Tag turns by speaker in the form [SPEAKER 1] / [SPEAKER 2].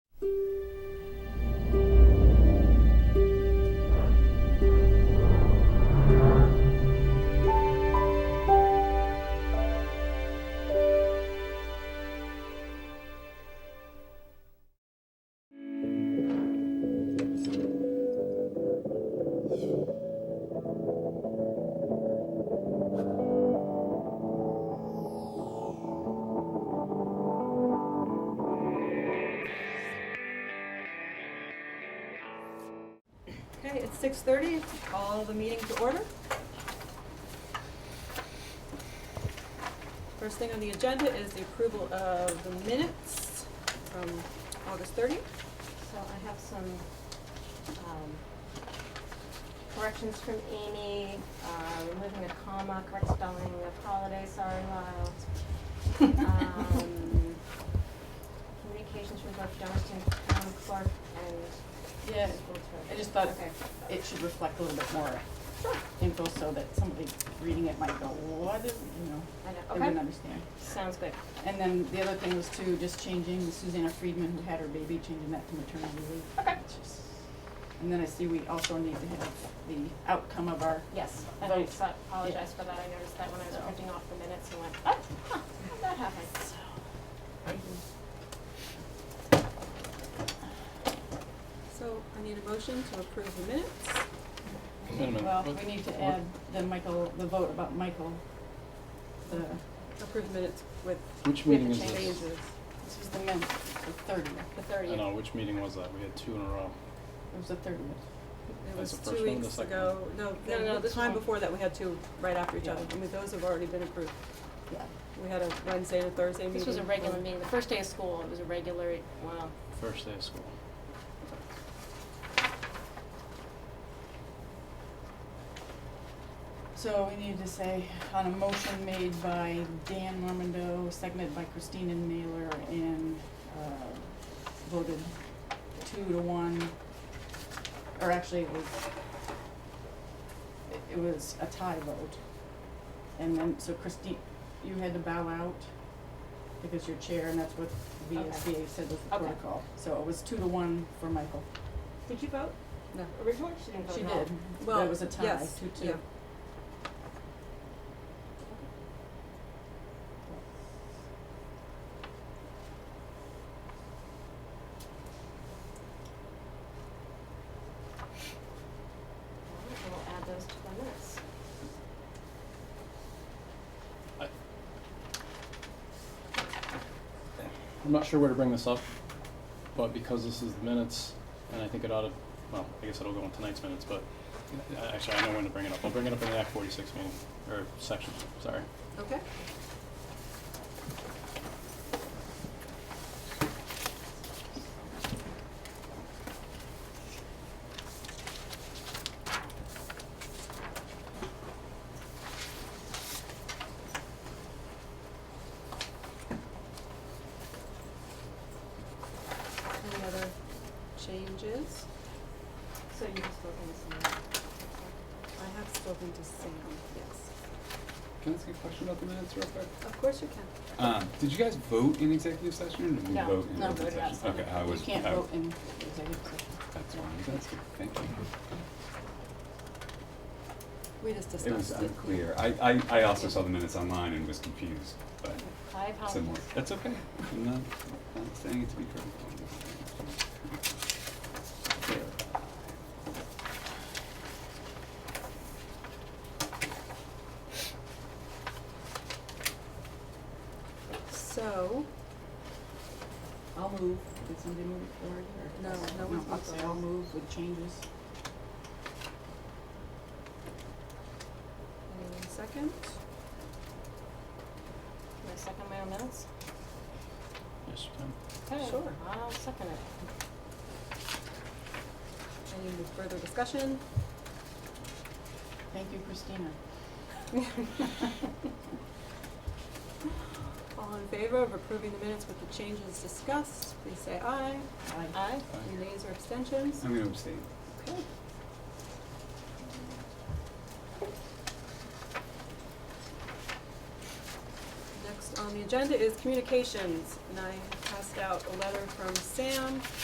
[SPEAKER 1] Okay, it's six thirty, call the meeting to order. First thing on the agenda is the approval of the minutes from August thirtieth.
[SPEAKER 2] So I have some um, corrections from Amy, uh, removing a comma, correct spelling of holiday, sorry Lyle. Um, Communications from both Johnston Town Clerk and
[SPEAKER 3] Yeah,
[SPEAKER 2] School Treasurer.
[SPEAKER 3] I just thought
[SPEAKER 2] Okay.
[SPEAKER 3] it should reflect a little bit more
[SPEAKER 2] Sure.
[SPEAKER 3] info so that somebody reading it might go, what is, you know,
[SPEAKER 2] I
[SPEAKER 3] they
[SPEAKER 2] know,
[SPEAKER 3] wouldn't
[SPEAKER 2] okay,
[SPEAKER 3] understand.
[SPEAKER 2] sounds good.
[SPEAKER 3] And then the other thing was too, just changing Susanna Friedman, who had her baby, changing that to maternity leave.
[SPEAKER 2] Okay.
[SPEAKER 3] It's just- And then I see we also need to have the outcome of our,
[SPEAKER 2] Yes, and I
[SPEAKER 3] Vote.
[SPEAKER 2] so- apologize for that, I noticed that when I was
[SPEAKER 3] So.
[SPEAKER 2] printing off the minutes and went, oh, huh, how'd that happen?
[SPEAKER 1] So I need a motion to approve the minutes.
[SPEAKER 4] Wait a minute,
[SPEAKER 3] well,
[SPEAKER 4] what-
[SPEAKER 3] we need
[SPEAKER 4] what-
[SPEAKER 3] to add the Michael, the vote about Michael. The,
[SPEAKER 1] Approve minutes with
[SPEAKER 4] Which
[SPEAKER 3] we have
[SPEAKER 4] meeting
[SPEAKER 3] to
[SPEAKER 4] is
[SPEAKER 3] change
[SPEAKER 4] this?
[SPEAKER 1] changes.
[SPEAKER 3] this was the men, the thirtieth,
[SPEAKER 2] The
[SPEAKER 4] I
[SPEAKER 2] thirtieth.
[SPEAKER 4] know, which meeting was that? We had two in a row.
[SPEAKER 3] it was the thirtieth.
[SPEAKER 1] It
[SPEAKER 4] That's
[SPEAKER 1] was
[SPEAKER 4] the
[SPEAKER 1] two
[SPEAKER 4] first one, the
[SPEAKER 1] weeks
[SPEAKER 4] second
[SPEAKER 1] ago, no,
[SPEAKER 2] No, no,
[SPEAKER 1] no, the
[SPEAKER 2] this
[SPEAKER 1] time
[SPEAKER 2] one.
[SPEAKER 1] before that, we had two right after each
[SPEAKER 3] Yeah.
[SPEAKER 1] other. I mean, those have already been approved.
[SPEAKER 3] Yeah.
[SPEAKER 1] We had a Wednesday and a Thursday meeting.
[SPEAKER 2] This was a regular
[SPEAKER 1] for-
[SPEAKER 2] meeting, the first day of school, it was a regular, wow.
[SPEAKER 4] First day of school.
[SPEAKER 3] So we need to say, on a motion made by Dan Normando, seconded by Christina Naylor, and, uh, voted two to one, or actually it was, it- it was a tie vote. And then, so Christine, you had to bow out because you're chair, and that's what VSBA said was the
[SPEAKER 2] Okay.
[SPEAKER 3] protocol. So it was two to one for Michael.
[SPEAKER 2] Did you vote?
[SPEAKER 1] No.
[SPEAKER 2] Originally, she didn't vote
[SPEAKER 3] She
[SPEAKER 2] no.
[SPEAKER 3] did.
[SPEAKER 1] Well,
[SPEAKER 3] That was a tie,
[SPEAKER 1] yes,
[SPEAKER 3] two two.
[SPEAKER 1] yeah.
[SPEAKER 2] Alright, We'll add those to the minutes.
[SPEAKER 4] I'm not sure where to bring this up, but because this is the minutes, and I think it ought to, well, I guess it'll go in tonight's minutes, but uh, actually, I know when to bring it up. I'll bring it up in the Act forty-six meeting, or section, sorry.
[SPEAKER 1] Okay. Any other changes?
[SPEAKER 2] So you just vote on this one.
[SPEAKER 1] I have spoken to Sam, yes.
[SPEAKER 5] Can I ask a question about the minutes real quick?
[SPEAKER 1] Of course you can.
[SPEAKER 5] Um, did you guys vote in executive session or did we
[SPEAKER 3] No,
[SPEAKER 5] vote in
[SPEAKER 3] no,
[SPEAKER 5] open
[SPEAKER 3] voted
[SPEAKER 5] session?
[SPEAKER 3] outside.
[SPEAKER 5] Okay, I
[SPEAKER 3] You
[SPEAKER 5] was,
[SPEAKER 3] can't
[SPEAKER 5] I-
[SPEAKER 3] vote in executive session.
[SPEAKER 5] that's fine, that's good, thank you.
[SPEAKER 1] We just
[SPEAKER 5] It was
[SPEAKER 1] discussed it.
[SPEAKER 5] unclear. I, I, I also saw the minutes online and was confused, but
[SPEAKER 2] I
[SPEAKER 3] Oh.
[SPEAKER 5] similar.
[SPEAKER 2] apologize.
[SPEAKER 5] That's okay. I'm not, not saying it to be critical.
[SPEAKER 1] So,
[SPEAKER 3] I'll move. Did somebody move it forward or?
[SPEAKER 1] No, no one's
[SPEAKER 3] I'll
[SPEAKER 1] moved
[SPEAKER 3] say
[SPEAKER 1] it.
[SPEAKER 3] I'll move with changes.
[SPEAKER 1] anyone second?
[SPEAKER 2] Can I second my own minutes?
[SPEAKER 4] Yes, you can.
[SPEAKER 2] Okay,
[SPEAKER 1] Sure.
[SPEAKER 2] I'll second it.
[SPEAKER 1] Any further discussion?
[SPEAKER 3] Thank you, Christina.
[SPEAKER 1] All in favor of approving the minutes with the changes discussed, please say aye.
[SPEAKER 3] I,
[SPEAKER 2] Aye?
[SPEAKER 1] Any nays or abstentions?
[SPEAKER 5] I'm gonna abstain.
[SPEAKER 1] Okay. Next on the agenda is communications, and I passed out a letter from Sam